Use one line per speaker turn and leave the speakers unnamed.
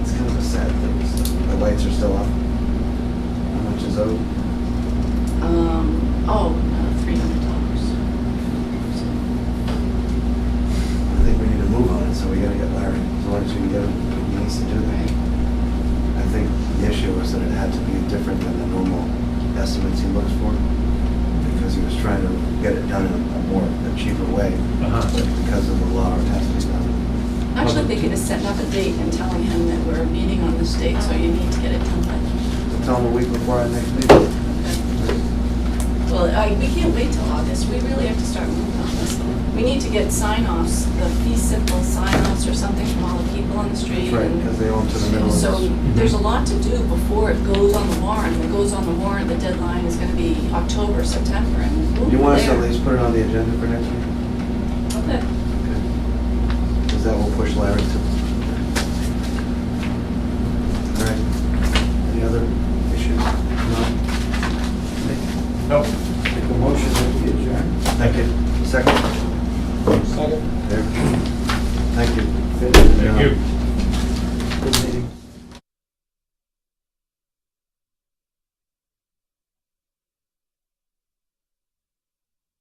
still up. How much is owed?
Um, oh, three hundred dollars.
I think we need to move on it, so we gotta get Larry, as long as we can get him, he needs to do that. I think the issue was that it had to be different than the normal estimates he looks for, because he was trying to get it done in a more, a cheaper way, but
Uh-huh.
because of the law, it has to be done.
Actually, they could have set up a date and telling him that we're meeting on this date, so you need to get it done by.
So Tell him a week before our next meeting.
Well, I, we can't wait till August, we really have to start moving on this. We need to get sign-offs, the fee simple sign-offs or something from all the people on the street.
Right,
and-
because they own to the middle of
So
this.
there's a lot to do before it goes on the warrant. If it goes on the warrant, the deadline is gonna be October, September, and we'll
You want us to
there.
at least put it on the agenda for next week?
Okay.
Because that will push Larry to. All right, any other issues? No?
Nope.
Make a motion that we adjourn.
Thank you. Second?
Second.
There.